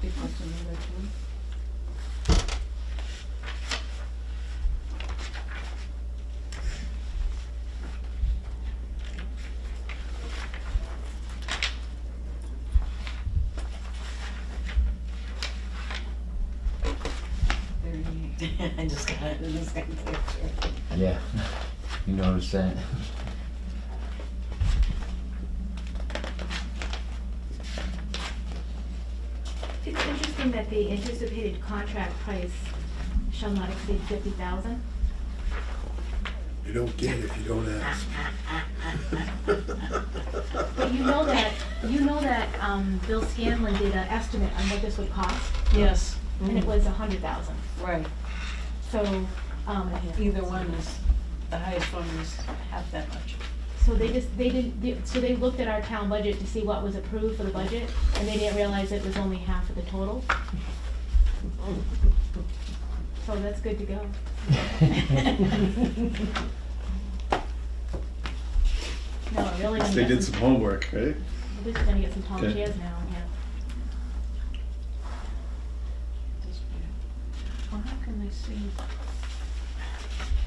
He wants to know which one. Thirty-eight. I just got it in the same picture. Yeah, you noticed that. It's interesting that the anticipated contract price shall not exceed fifty thousand. You don't get it if you don't ask. But you know that, you know that, um, Bill Scanlon did an estimate on what this would cost, Yes. and it was a hundred thousand. Mm-hmm. Right, So, um, either one is, the highest one is half that much. so they just, they didn't, they- so they looked at our town budget to see what was approved for the budget, and they didn't realize it was only half of the total. So that's good to go. No, I'm really gonna They get did some- some homework, right? We're just gonna get some tall Okay. chairs now, yeah. Well, how can they say,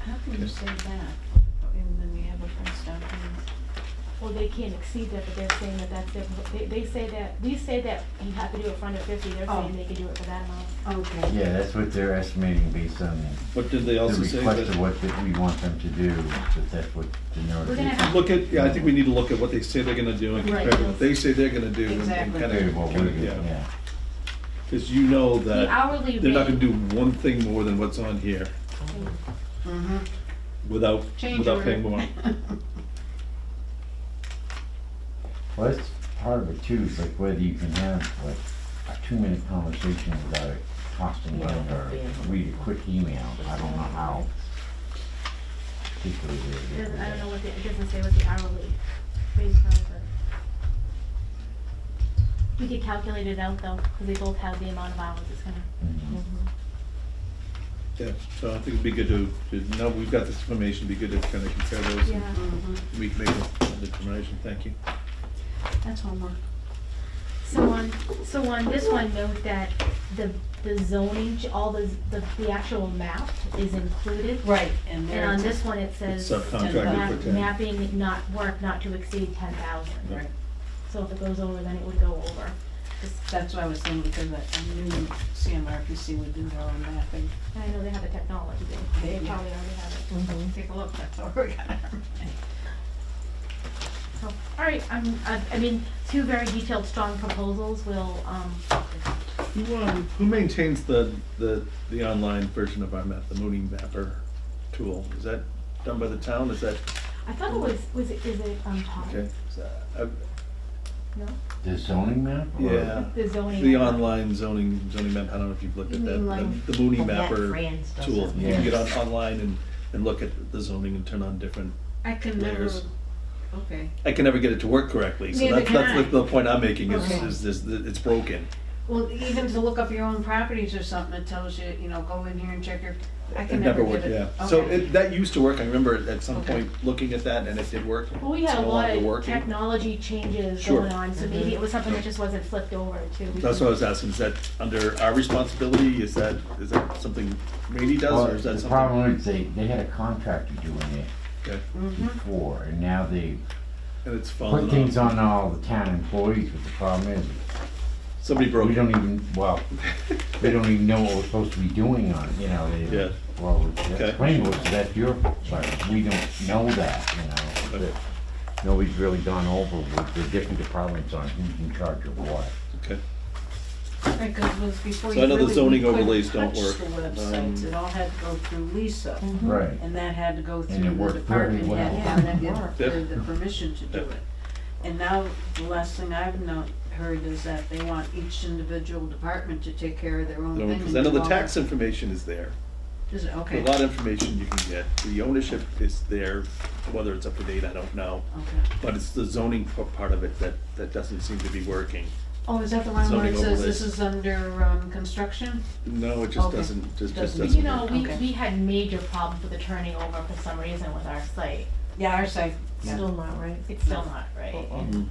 how can you say that? And then we have a price document. Well, they can't exceed that, but they're saying that that's their, they, they say that, we say that you have to do it for under fifty, they're Oh. saying they can do it for that amount. Okay. Yeah, that's what they're estimating based on What did they the also say? request of that- what that we want them to do, that that's what the We're gonna notification. have- Look at, yeah, I think we need to look at what they say they're gonna do and compare Right. to what they say they're gonna do. and- and Exactly. kinda- Okay, what we're kinda- doing, yeah. yeah. Cause you know The that hourly Uh, they're not gonna rate, do one thing more than what's on here Mm-hmm. without, Change without paying order. more. Well, that's part of it too, is like whether you can have like a two-minute conversation without it costing Yeah, money or yeah. read a quick email, I don't know how. particularly it they- doesn't, I don't know what the, it doesn't say what the hourly rate is, but. We could calculate it out though, cause they both have the amount of hours it's gonna, Mhm. Yeah, so I think it'd be good to, to, now we've got this information, it'd be good to kinda compare those and yeah. Mm-hmm. we can make a determination, thank you. That's homework. So on, so on this one, note that the, the zoning, ch- all the, the, the actual map is included. Right, and And there on it's. this one, it says. Subcontracted Map- for ten. Mapping not work not to exceed ten thousand. Right, So if it goes over, then it would go over. Just- that's what I was saying, because I I knew CMRPC would do their own mapping. I know they have the technology, they They do. probably already have it. Take a look, that's all we got. So, all right, I'm, I, I mean, two very detailed, strong proposals will, um, Who, um, who maintains the, the, the online version of our map, the Mooney Mapper tool? Is that done by the town? Is that, I thought it was, was it, is it, um, Tom? okay? Is that- uh, I- No? The zoning map? or- Yeah. The zoning. Uh, The map. online zoning, zoning map, I don't know if you've looked at You that, mean but like the the Mooney Well, that Mapper Franz does tool. it. You can get on, Yes. online and, and look at the zoning and turn on different, I can never, Layers. okay. I can never get it to work correctly, so Neither that's, can that's I. like the point I'm making is, Okay. is, is that it's broken. Well, even to look up your own properties or something, it tells you, you know, go in here and check your, I It can never never get worked, it. yeah. So Okay. it, that used to work, I remember at some Okay. point looking at that and it did work. Well, we It's had a no lot longer of working. technology changes Sure. Mm-hmm. going on, so maybe it was something that just wasn't flipped over to. That's what I was asking, is that under our responsibility, is that, is that something Randy does, Well, or is that The something? problem is they, they had a contractor doing Okay, it before, and now they And it's put fallen things off, on all the town employees, but the problem is, somebody broke we it, don't even, well, they don't even know what we're supposed to be doing on, it, you know, Yeah. they, well, Okay. that's plain, so that's your, but we don't know that, you know, Okay. that nobody's really gone over with the different departments on who's in charge of what. okay. Right, 'cause it was before So you I know the really zoning couldn't overlays don't touch the work. websites. Um, It all had to go through Lisa, Right. and that had to go it through the worked very department well. head, and then get Yeah. the- the permission to do Yeah. it. And now, the last thing I've known, heard is that they want each individual department to take care of their own thing. Because and I know do the all tax that. information is there, Is it, a okay, lot of information you can get, the ownership is there, whether it's up to date, I don't know. okay. But it's the zoning p- part of it that, that doesn't seem to be working. Oh, is that the one where Zoning it says this overlays. is under, um, construction? No, it just Okay. doesn't, just, just Doesn't- doesn't. You know, we, Okay. we had major problems with the turning over for some reason with our site. Yeah, our site, yeah. Still not right. It's still not right. Mhm.